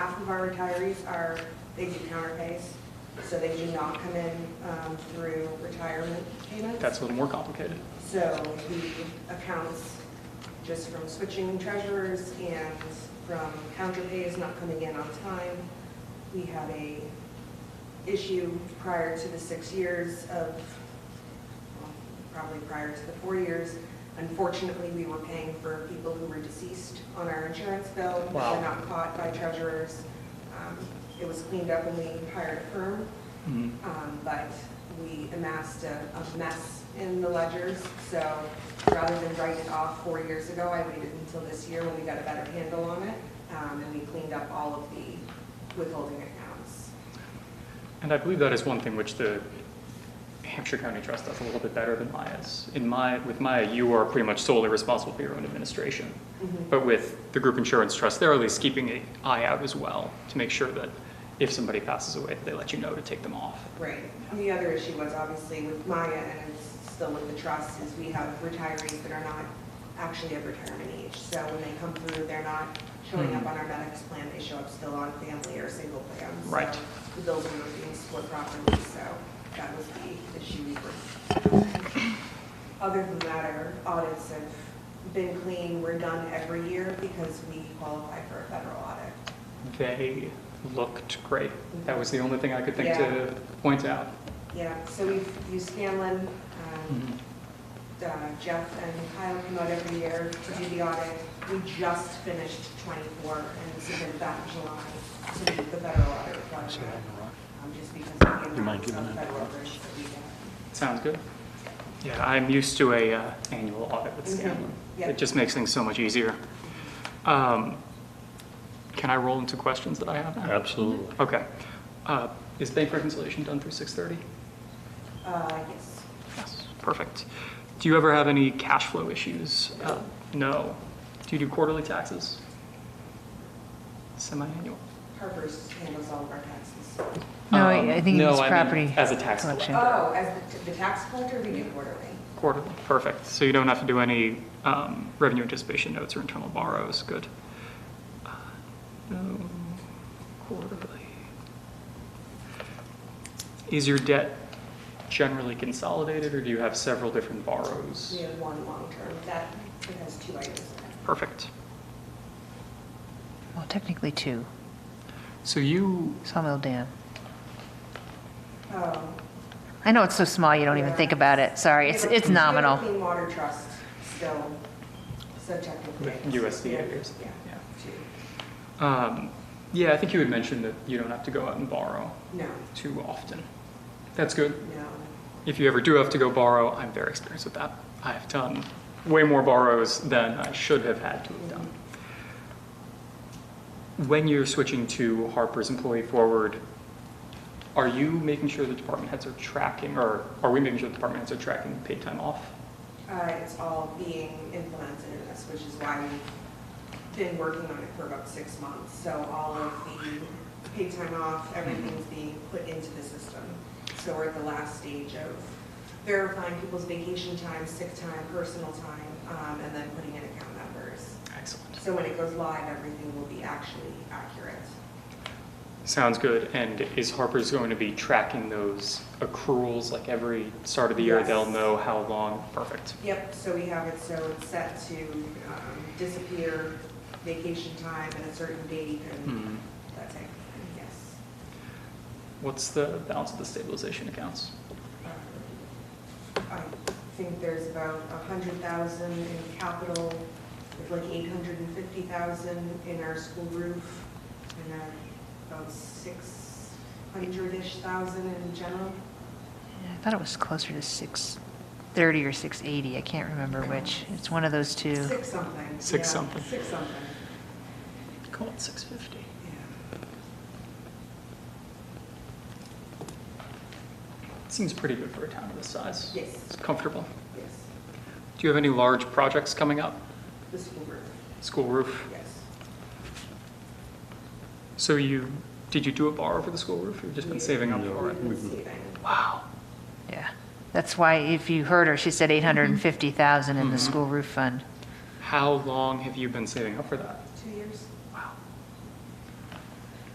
half of our retirees are, they do counterpays, so they do not come in um, through retirement payments. That's a little more complicated. So the accounts, just from switching treasurers and from counterpays not coming in on time, we had a issue prior to the six years of, well, probably prior to the four years. Unfortunately, we were paying for people who were deceased on our insurance bill. We Wow. were not caught by treasurers. Um, It was cleaned up when we hired a firm. Mhm. Um, but we amassed a, a mess in the ledgers, so rather than write it off four years ago, I waited until this year when we got a better handle on it, um, and we cleaned up all of the withholding accounts. And I believe that is one thing which the Hampshire County Trust does a little bit better than Maya's. In Maya, with Maya, you are pretty much solely responsible for your own administration. But with the group insurance trust, they're at least keeping an eye out as well to make sure that if somebody passes away, they let you know to take them off. Right. And the other issue was obviously with Maya and it's still with the trust is we have retirees that are not actually of retirement age. So when they come through, they're not showing up on our medics plan. They show up still on family or single plan. So Right. The bills were not being split properly, so that was the issue we were. Other than that, our audits have been clean. We're done every year because we qualify for a federal audit. They looked great. That was the only thing I could think to point out. Yeah, so we've used Scanlon, um, Mhm. uh, Jeff and Kyle come out every year to do the audit. We just finished 24 and submitted that in July to meet the federal audit requirement. Um, Just because of the amount of federal grants that we get. Sounds good. Yeah, I'm used to a uh, annual audit with Mhm. Scanlon. Yep. It just makes things so much easier. Um, Can I roll into questions that I have now? Absolutely. Okay. Uh, Is bank reconciliation done through 6:30? Uh, Yes. Yes. Perfect. Do you ever have any cash flow issues? Uh, No. Do you do quarterly taxes? Semi-annual? Harper's handles all of our taxes. No, Um, I I think no, it's I mean property. as a tax collection. Oh, as the- the tax collector, we do quarterly. Quarterly, perfect. So you don't have to do any um, revenue anticipation notes or internal borrows, good. Uh, No, quarterly. Is your debt generally consolidated, or do you have several different borrows? We have one long-term, that it has two items in it. Perfect. Well, technically two, So you, Sawmill Dam. Oh, I know it's so small, you don't even Yeah. think about it, sorry, it's, it's nominal. Clean Water Trust still, so technically. With USDA years. Yeah. Yeah. two. um, yeah, I think you had mentioned that you don't have to go out and borrow No, too often. That's good. no. If you ever do have to go borrow, I'm very experienced with that. I have done way more borrows than I should have had to have done. When you're switching to Harper's Employee Forward, are you making sure the department heads are tracking, or are we making sure the department heads are tracking paid time off? Uh, It's all being implemented in this, which is why we've been working on it for about six months. So all of the paid time off, everything's being put into the system. So we're at the last stage of verifying people's vacation time, sick time, personal time, um, and then putting in account numbers. Excellent. So when it goes live, everything will be actually accurate. Sounds good. And is Harper's going to be tracking those accruals, like every start of the year? Yes. They'll know how long? Perfect. Yep, so we have it, so it's set to um, disappear, vacation time, and a certain date, and Mhm. that type of thing, yes. What's the balance of the stabilization accounts? Um, I think there's about a hundred thousand in capital, with like eight hundred and fifty thousand in our school roof, and then about six hundred-ish thousand in general. I thought it was closer to 630 or 680, I can't remember which. It's one of those two. Six something. Six yeah, something. Six something, Call it 650. yeah. Seems pretty good for a town of this size. Yes. It's comfortable. Yes, Do you have any large projects coming up? the school roof, School roof? yes. So you, did you do a borrow for the school roof? You've just been saving up for it? We've been saving. Wow. Yeah, that's why, if you heard her, she Mm-hmm. said 850,000 in the school roof fund. How long have you been saving up for that?